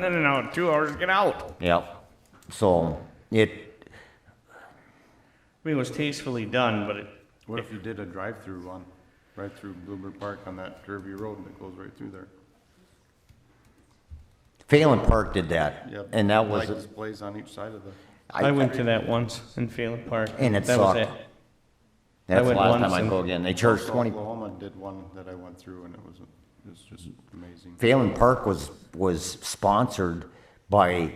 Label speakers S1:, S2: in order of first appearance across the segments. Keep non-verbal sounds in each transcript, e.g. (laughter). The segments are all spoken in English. S1: No, no, no, two hours, get out.
S2: Yep. So it,
S1: I mean, it was tastefully done, but it,
S3: What if you did a drive-through on, right through Bluebird Park on that curvy road that goes right through there?
S2: Phelan Park did that.
S3: Yeah,
S2: And that was,
S3: Light displays on each side of the,
S1: I went to that once in Phelan Park.
S2: And it
S1: That was
S2: sucked.
S1: I
S2: that's the
S1: went
S2: last time
S1: once
S2: I
S1: and-
S2: go again. They charged
S3: So
S2: twenty,
S3: Oklahoma did one that I went through and it was, it was just amazing.
S2: Phelan Park was, was sponsored by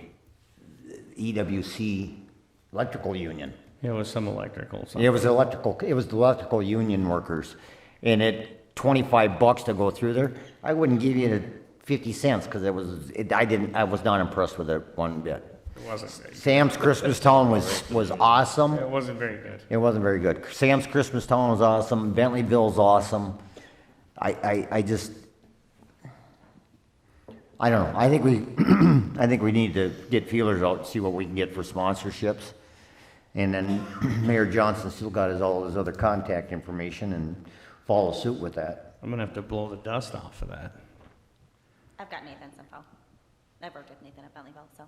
S2: EWC Electrical Union.
S1: It was some electrical, something.
S2: It was electrical, it was the electrical union workers. And it, twenty-five bucks to go through there, I wouldn't give you the fifty cents, cause it was, it, I didn't, I was not impressed with it one bit.
S1: It wasn't,
S2: Sam's Christmas Town was, was awesome.
S1: it wasn't very good.
S2: It wasn't very good. Sam's Christmas Town was awesome. Bentleyville's awesome. I, I, I just, I don't know. I think we, (clears throat) I think we need to get feelers out and see what we can get for sponsorships. And then (clears throat) Mayor Johnson still got his, all his other contact information and follow suit with that.
S1: I'm gonna have to blow the dust off of that.
S4: I've got Nathan's info. I've worked with Nathan at Bentleyville, so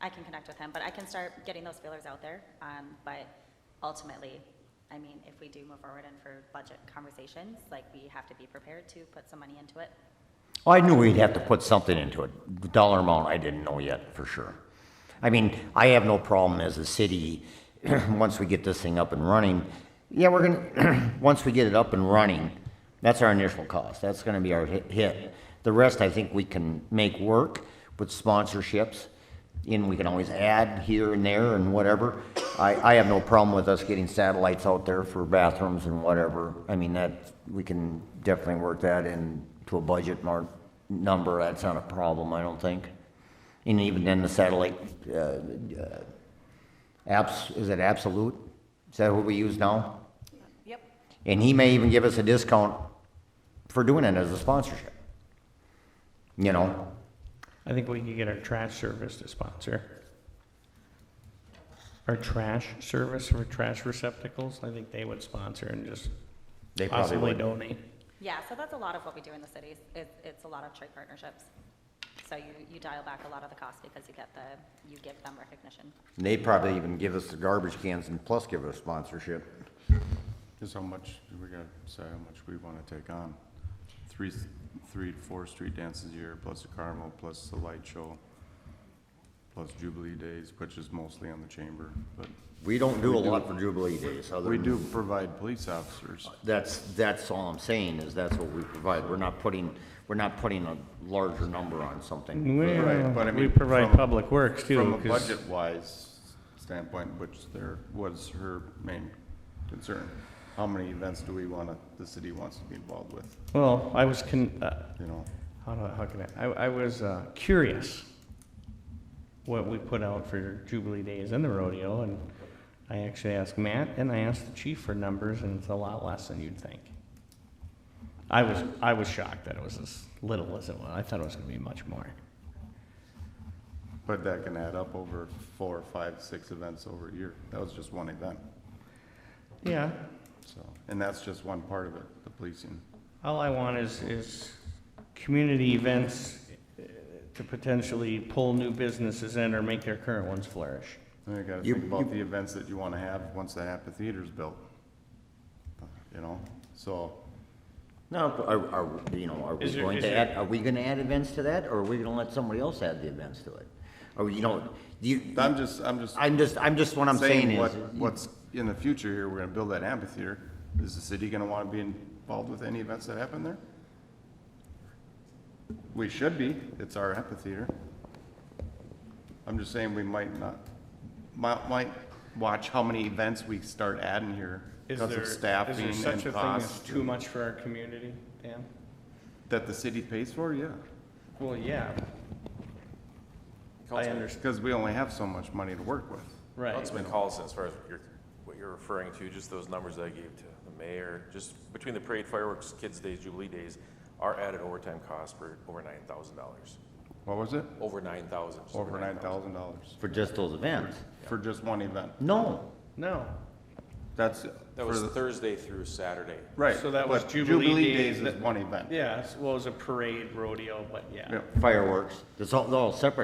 S4: I can connect with him, but I can start getting those feelers out there. Um, but ultimately, I mean, if we do move forward and for budget conversations, like, we have to be prepared to put some money into it.
S2: I knew we'd have to put something into it. The dollar amount, I didn't know yet for sure. I mean, I have no problem as a city, (clears throat) once we get this thing up and running, yeah, we're gonna, (clears throat) once we get it up and running, that's our initial cost. That's gonna be our hi- hit. The rest, I think we can make work with sponsorships, and we can always add here and there and whatever. I, I have no problem with us getting satellites out there for bathrooms and whatever. I mean, that, we can definitely work that into a budget mar- number. That's not a problem, I don't think. And even then, the satellite, uh, uh, abs, is it absolute? Is that what we use now?
S4: Yep.
S2: And he may even give us a discount for doing it as a sponsorship. You know?
S1: I think we could get our trash service to sponsor. Our trash service for trash receptacles, I think they would sponsor and just
S2: They probably
S1: possibly
S2: would.
S1: donate.
S4: Yeah, so that's a lot of what we do in the cities. It, it's a lot of trade partnerships. So you, you dial back a lot of the cost because you get the, you give them recognition.
S2: They probably even give us the garbage cans and plus give us sponsorship.
S3: Just how much, we gotta say how much we wanna take on. Three, three to four street dances a year, plus the carnival, plus the light show, plus Jubilee Days, which is mostly on the chamber, but
S2: We don't do a lot for Jubilee Days, other
S3: we
S2: than-
S3: do provide police officers.
S2: That's, that's all I'm saying, is that's what we provide. We're not putting, we're not putting a larger number on something.
S3: Mm-hmm. Right, but I
S1: Well, We
S3: mean,
S1: provide
S3: from-
S1: public works too.
S3: From a
S1: 'cause-
S3: budget-wise standpoint, which there was her main concern, how many events do we wanna, the city wants to be involved with,
S1: Well, I was con, uh,
S3: you know?
S1: How do, how can I, I, I was uh, curious what we put out for Jubilee Days and the rodeo, and I actually asked Matt and I asked the chief for numbers, and it's a lot less than you'd think. I was, I was shocked that it was as little as it was. I thought it was gonna be much more.
S3: But that can add up over four, five, six events over a year. That was just one event,
S1: Yeah,
S3: so, and that's just one part of it, the policing.
S1: all I want is, is community events uh, to potentially pull new businesses in or make their current ones flourish.
S3: Then you gotta
S2: You-
S3: think about the events that you wanna have once the amphitheater's built. You know, so,
S2: No, are, are, you know, are we
S1: Is there-
S2: going
S1: is
S2: to
S1: there-
S2: add, are we gonna add events to that, or are we gonna let somebody else add the events to it? Or, you know, you,
S3: I'm just, I'm just.
S2: I'm just, I'm just, what I'm saying is,
S3: what- What's in the future here, we're gonna build that amphitheater. Is the city gonna wanna be involved with any events that happen there? We should be, it's our amphitheater. I'm just saying we might not, might, might watch how many events we start adding here
S1: Is
S3: because
S1: there-
S3: of
S1: is there
S3: staffing
S1: such a
S3: and
S1: thing as
S3: cost.
S1: Too much for our community, Dan?
S3: That the city pays for, yeah.
S1: Well, yeah. I understand,
S3: Because we only have so much money to work with.
S1: right.
S5: Councilman Collison, as far as you're, what you're referring to, just those numbers that I gave to the mayor, just between the parade fireworks, kids' days, jubilee days, our added overtime costs were over nine thousand dollars.
S3: What was it?
S5: Over nine thousand. just
S3: Over nine thousand dollars
S2: for just those events,
S3: for just one event.
S2: no.
S1: No,
S3: That's. for
S5: That was
S3: the-
S5: Thursday through Saturday.
S3: Right.
S1: So that was
S3: but
S1: Jubilee Days
S3: Days
S1: that-
S3: is one event.
S1: yeah, well, it was a parade rodeo, but yeah.
S3: Yeah.
S2: Fireworks, it's all, they're all separate